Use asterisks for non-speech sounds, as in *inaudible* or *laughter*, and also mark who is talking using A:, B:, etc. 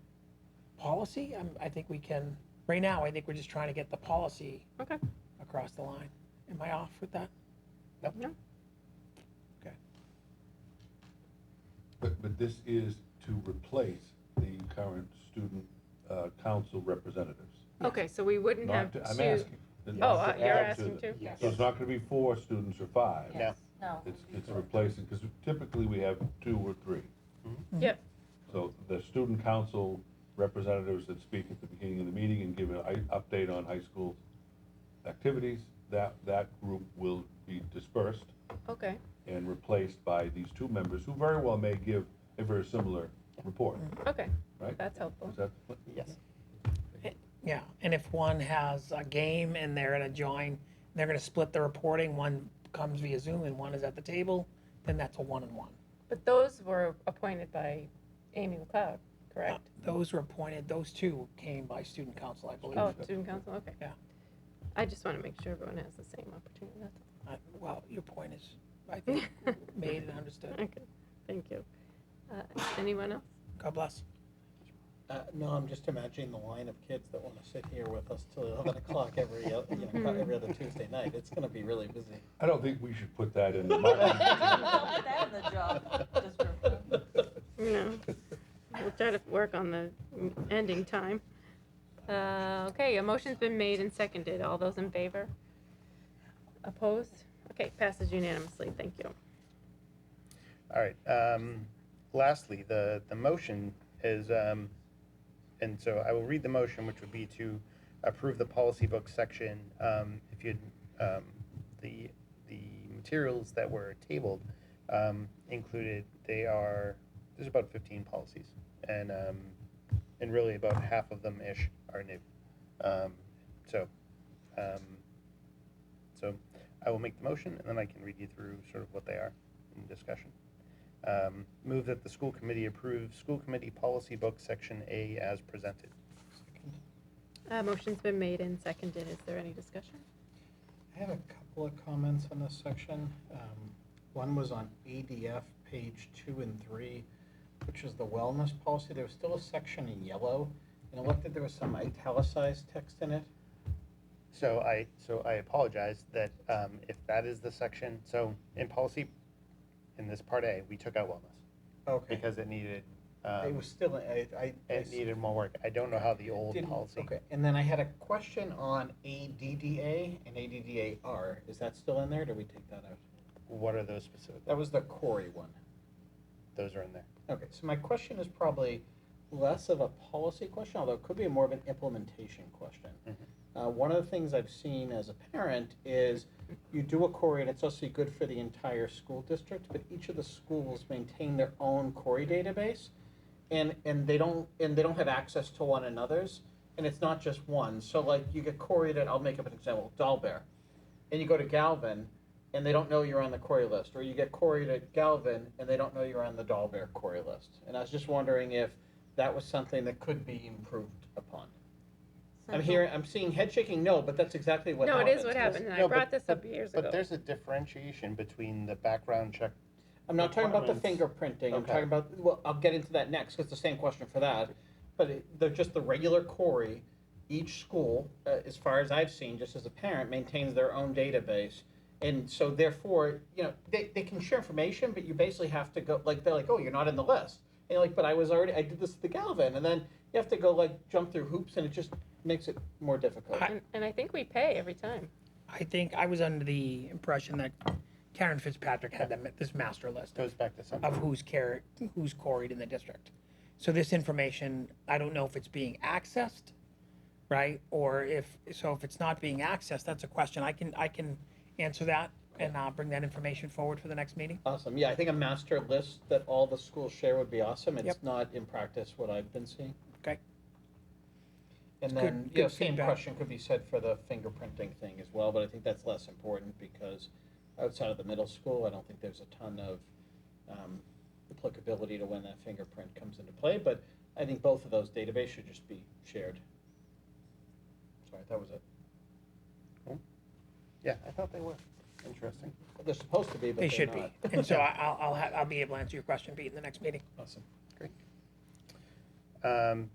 A: policy, um, I think we can, right now, I think we're just trying to get the policy
B: Okay.
A: across the line. Am I off with that?
B: No.
A: Okay.
C: But, but this is to replace the current student uh, council representatives.
B: Okay, so we wouldn't have
C: Not to-
B: two.
C: I'm asking.
B: Oh,
C: Not
B: uh,
C: to
B: you're
C: add to
B: asking
C: the-
B: too?
D: Yes.
C: So it's not gonna be four students or five.
D: Yes. No.
C: It's, it's replacing, because typically we have two or three.
B: Yep,
C: So the student council representatives that speak at the beginning of the meeting and give an i- update on high school activities, that, that group will be dispersed
B: okay,
C: and replaced by these two members who very well may give a very similar report,
B: okay,
C: right?
B: that's helpful.
C: Is that, the plan?
D: Yes.
A: Yeah, and if one has a game and they're gonna join, they're gonna split the reporting, one comes via Zoom and one is at the table, then that's a one-on-one.
B: But those were appointed by Amy McLeod, correct?
A: Those were appointed, those two came by student council, I believe.
B: Oh, student council, okay.
A: Yeah.
B: I just want to make sure everyone has the same opportunity, that's
A: I-
B: all.
A: Uh, Well, your point is, I think,
B: *laughs*
A: made and understood.
B: Okay, thank you. Uh, Anyone else?
A: God bless.
D: Uh, no, I'm just imagining the line of kids that want to sit here with us till
E: *laughs*
D: 11 o'clock every, o- you know,
B: Mhm.
D: every other Tuesday night. It's going to be really busy.
E: *laughs*
C: I don't think we should put that in the marketing.
F: Put that in the job description.
B: No. We'll try to work on the ending time. Uh, Okay, a motion's been made and seconded. All those in favor? Opposed? Okay, passes unanimously, thank you.
E: All right. um, Lastly, the, the motion is, um, and so I will read the motion, which would be to approve the policy book section. Um, If you, um, the, the materials that were tabled um, included, they are, there's about 15 policies. And, um, and really about half of them-ish are new. Um, So, um, so I will make the motion, and then I can read you through sort of what they are in discussion. Um, Move that the school committee approve school committee policy book, section A, as presented.
B: Uh, Motion's been made and seconded. Is there any discussion?
D: I have a couple of comments on this section. Um, One was on ADF, page two and three, which is the wellness policy. There was still a section in yellow, and it looked like there was some italicized text in it.
E: So I, so I apologize that um, if that is the section, so in policy, in this part A, we took out wellness
D: Okay.
E: because it needed,
D: It
E: um,
D: was still, I, I. I
E: it needed more work. I don't know how the old
D: Didn't-
E: policy.
D: Okay, and then I had a question on ADDA and ADDAR. Is that still in there? Did we take that out?
E: What are those specific?
D: That was the Corey one.
E: Those are in there.
D: Okay, so my question is probably less of a policy question, although it could be more of an implementation question. Uh, one of the things I've seen as a parent is you do a Corey and it's also good for the entire school district, but each of the schools maintain their own Corey database. And, and they don't, and they don't have access to one another's, and it's not just one. So like you get Coreyed at, I'll make up an example, Dahlberg. And you go to Galvin and they don't know you're on the Corey list, or you get Coreyed at Galvin and they don't know you're on the Dahlberg Corey list. And I was just wondering if that was something that could be improved upon. I'm hearing, I'm seeing head shaking no, but that's exactly what
B: No,
D: happened.
B: it is what happened, and I
E: No, but-
B: brought this up years ago.
E: But there's a differentiation between the background check.
D: I'm not talking about the
E: Requirements.
D: fingerprinting, I'm
E: Okay.
D: talking about, well, I'll get into that next, 'cause it's the same question for that. But it- they're just the regular Corey, each school, uh, as far as I've seen, just as a parent, maintains their own database. And so therefore, you know, they, they can share information, but you basically have to go, like, they're like, oh, you're not in the list. And you're like, but I was already, I did this to Galvin, and then you have to go like jump through hoops, and it just makes it more difficult.
A: I-
B: And, and I think we pay every time.
A: I think I was under the impression that Karen Fitzpatrick had that, ma- this master list
E: Goes back to
D: Uh,
E: something.
A: of who's car, who's quarried in the district. So this information, I don't know if it's being accessed, right? Or if, so if it's not being accessed, that's a question. I can, I can answer that and uh, bring that information forward for the next meeting.
D: Awesome, yeah, I think a master list that all the schools share would be awesome,
A: Yep.
D: it's not in practice what I've been seeing.
A: Okay.
D: And
A: Good-
D: then, you know,
A: good
D: same
A: feedback.
D: question could be said for the fingerprinting thing as well, but I think that's less important because outside of the middle school, I don't think there's a ton of um, applicability to when that fingerprint comes into play, but I think both of those databases should just be shared. Sorry, that was it.
E: Yeah, I thought they were. Interesting.
D: They're supposed to be, but
A: They
D: they're
A: should be.
D: not. *laughs*
A: And so I- I'll, I'll, ha- I'll be able to answer your question, Pete, in the next meeting.
D: Awesome.
E: Um,